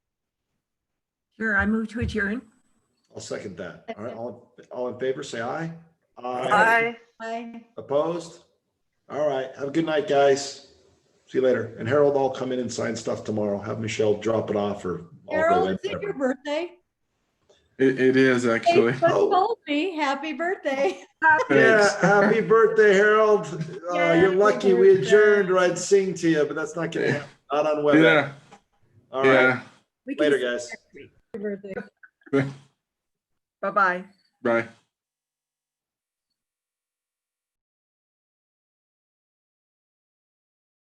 Sure, I move to adjourn. I'll second that. All right, all, all in favor, say aye. Aye. Bye. Opposed? All right, have a good night, guys. See you later. And Harold, I'll come in and sign stuff tomorrow. Have Michelle drop it off or. I'll go Harold, in, is it your whatever. birthday? It, it is actually. Facebook Oh. told me, happy birthday. Yeah, um, Thanks. happy birthday, Harold. Uh, You're Yay, lucky we birthday. adjourned or I'd sing to you, but that's not gonna happen. Not on weather. Yeah, uh, All right, yeah. We can later, see you guys. next week. Happy birthday. Bye-bye. Bye.